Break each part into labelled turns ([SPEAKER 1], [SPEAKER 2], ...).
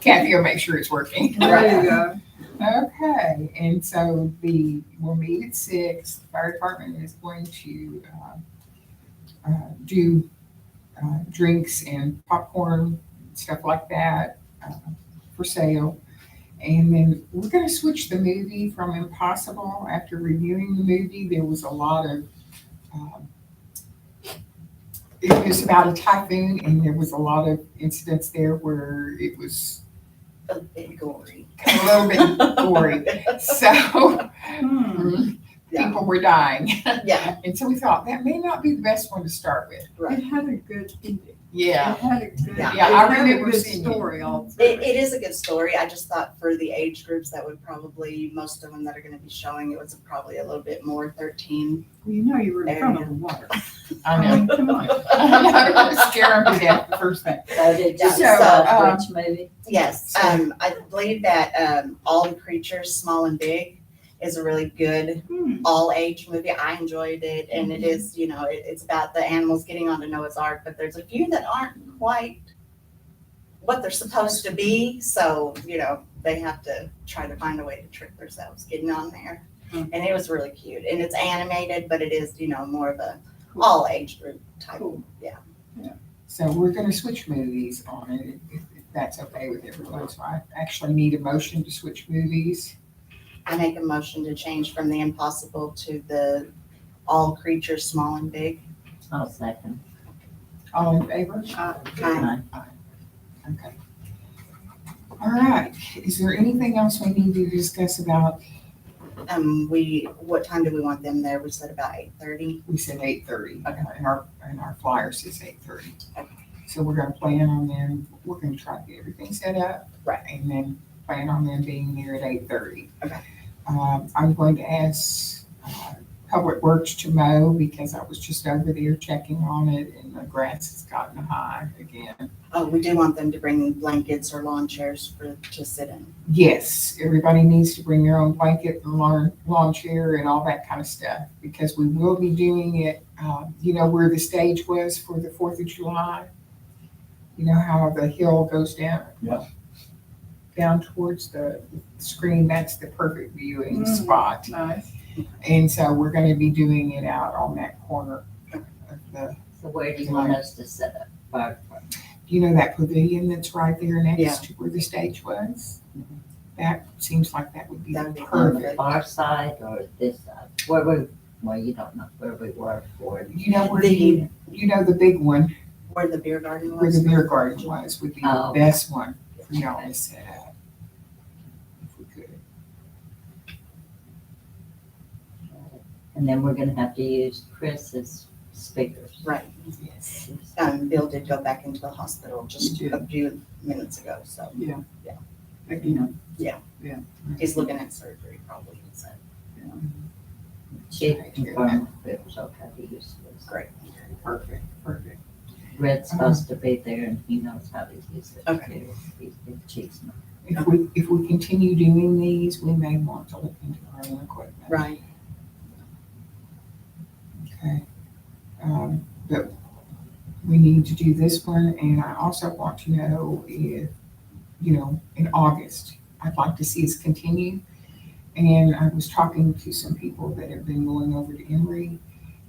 [SPEAKER 1] Kathy will make sure it's working.
[SPEAKER 2] There you go.
[SPEAKER 1] Okay, and so the, we'll meet at six, the fire department is going to, uh, uh, do, uh, drinks and popcorn, stuff like that, uh, for sale. And then we're gonna switch the movie from Impossible, after reviewing the movie, there was a lot of, um, it was about a typhoon and there was a lot of incidents there where it was
[SPEAKER 3] A bit gory.
[SPEAKER 1] a little bit gory. So
[SPEAKER 2] Hmm.
[SPEAKER 3] Yeah.
[SPEAKER 1] people were dying.
[SPEAKER 3] Yeah,
[SPEAKER 1] And so we thought that may not be the best one to start with.
[SPEAKER 2] It
[SPEAKER 3] right.
[SPEAKER 2] had a good ending.
[SPEAKER 1] Yeah.
[SPEAKER 2] It had a good.
[SPEAKER 3] Yeah,
[SPEAKER 1] I
[SPEAKER 2] it had a
[SPEAKER 1] remember
[SPEAKER 2] good
[SPEAKER 1] seeing it.
[SPEAKER 2] Story all through
[SPEAKER 3] It,
[SPEAKER 2] it.
[SPEAKER 3] it is a good story. I just thought for the age groups that would probably, most of them that are gonna be showing, it was probably a little bit more thirteen.
[SPEAKER 2] You know you were in front of the water.
[SPEAKER 1] I
[SPEAKER 2] I
[SPEAKER 1] know.
[SPEAKER 2] mean, come on.
[SPEAKER 1] I'm not going to scare them to death the first thing.
[SPEAKER 4] So did you
[SPEAKER 3] So,
[SPEAKER 4] decide
[SPEAKER 1] um,
[SPEAKER 4] which movie?
[SPEAKER 3] Yes, um, I believe that, um, All the Creatures, Small and Big is a really good
[SPEAKER 2] Hmm. Mm-hmm.
[SPEAKER 3] all age movie. I enjoyed it and it is, you know, it, it's about the animals getting onto Noah's Ark, but there's a few that aren't quite what they're supposed to be. So, you know, they have to try to find a way to trick themselves getting on there.
[SPEAKER 2] Hmm.
[SPEAKER 3] And it was really cute. And it's animated, but it is, you know, more of a
[SPEAKER 2] Cool.
[SPEAKER 3] all age group type.
[SPEAKER 2] Cool.
[SPEAKER 1] So we're going to switch movies on it if, if that's okay with everyone. So I actually need a motion to switch movies.
[SPEAKER 3] I make a motion to change from the impossible to the all creatures, small and big.
[SPEAKER 4] I'll second.
[SPEAKER 1] All in favor?
[SPEAKER 2] Uh,
[SPEAKER 3] Um,
[SPEAKER 1] Okay. All right. Is there anything else we need to discuss about?
[SPEAKER 3] Um, we, what time do we want them there? We said about eight thirty.
[SPEAKER 1] We said eight thirty.
[SPEAKER 3] Okay.
[SPEAKER 1] And our, and our flyer says eight thirty.
[SPEAKER 3] Okay.
[SPEAKER 1] So we're gonna plan on them, we're gonna try to get everything set up.
[SPEAKER 3] Right.
[SPEAKER 1] And then plan on them being here at eight thirty.
[SPEAKER 3] Okay.
[SPEAKER 1] Um, I'm going to ask, uh, Public Works to mow because I was just over there checking on it and the grass has gotten high again.
[SPEAKER 3] Oh, we do want them to bring blankets or lawn chairs for, to sit in.
[SPEAKER 1] Yes, everybody needs to bring their own blanket and lawn, lawn chair and all that kind of stuff because we will be doing it, uh, you know, where the stage was for the Fourth of July. You know how the hill goes down?
[SPEAKER 5] Yeah.
[SPEAKER 1] Down towards the screen, that's the perfect viewing
[SPEAKER 2] Mm.
[SPEAKER 1] spot.
[SPEAKER 2] Nice.
[SPEAKER 1] And so we're gonna be doing it out on that corner of the,
[SPEAKER 4] So where do you want us to set up? Fire department?
[SPEAKER 1] you know, that pavilion that's right there
[SPEAKER 3] Yeah. Mm-hmm.
[SPEAKER 1] next to where the stage was? That seems like that would be
[SPEAKER 3] That would be
[SPEAKER 4] On
[SPEAKER 1] perfect.
[SPEAKER 4] the far side or this side? Where we, well, you don't know where we were for. it.
[SPEAKER 1] You know where
[SPEAKER 3] The-
[SPEAKER 1] you, you know the big one
[SPEAKER 3] Where the beer garden
[SPEAKER 1] where the
[SPEAKER 3] was.
[SPEAKER 1] beer garden was would be the
[SPEAKER 4] Oh.
[SPEAKER 1] best one for y'all to set up. If we could.
[SPEAKER 4] And then we're gonna have to use Chris's speakers.
[SPEAKER 3] Right.
[SPEAKER 1] Yes.
[SPEAKER 3] Um, Bill did go back into the hospital just a few minutes ago, so
[SPEAKER 2] Again.
[SPEAKER 3] he's looking at surgery probably. so.
[SPEAKER 4] She confirmed it was okay to use this.
[SPEAKER 3] Great.
[SPEAKER 1] Perfect, perfect.
[SPEAKER 4] Red's supposed to be there and he knows how to use it.
[SPEAKER 3] Okay.
[SPEAKER 4] too. He's been cheating.
[SPEAKER 1] If we, if we continue doing these, we may want to look into our own equipment.
[SPEAKER 3] Right.
[SPEAKER 1] Okay. Um, but we need to do this one and I also want to know if, you know, in August, I'd like to see us continue. And I was talking to some people that have been going over to Emory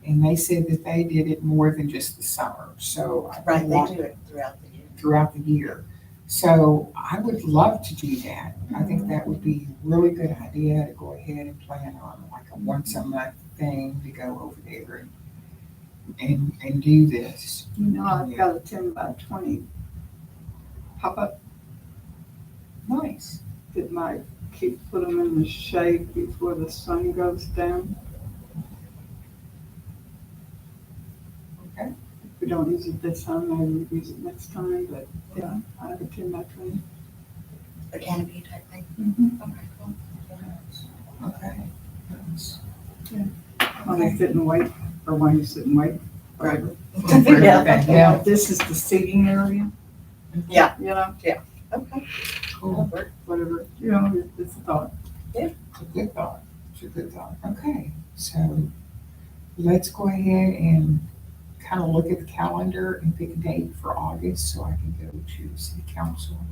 [SPEAKER 1] and they said that they did it more than just the summer. So I
[SPEAKER 3] Right,
[SPEAKER 1] want
[SPEAKER 3] they do it throughout the year.
[SPEAKER 1] throughout the year. So I would love to do that. I think that would be a really good idea to go ahead and plan on like a once a month thing to go over there and and, and do this.
[SPEAKER 2] You know, I've got a ten by twenty pop-up
[SPEAKER 1] Nice.
[SPEAKER 2] that might keep, put them in the shade before the sun goes down.
[SPEAKER 1] Okay.
[SPEAKER 2] If we don't use it this time, maybe we use it next time, but yeah, I have a ten by twenty.
[SPEAKER 3] The canopy type thing. Oh Okay, cool.
[SPEAKER 1] Okay.
[SPEAKER 2] When I sit and wait, or when you sit and wait, whatever.
[SPEAKER 3] Yeah.
[SPEAKER 2] You know, This is the seating area.
[SPEAKER 3] Yeah.
[SPEAKER 2] You know,
[SPEAKER 3] Okay.
[SPEAKER 1] Cool.
[SPEAKER 2] whatever, you know, it's- it's a thought.
[SPEAKER 1] It's a good thought. It's a good thought. Okay, so let's go ahead and kind of look at the calendar and pick a date for August so I can go to city council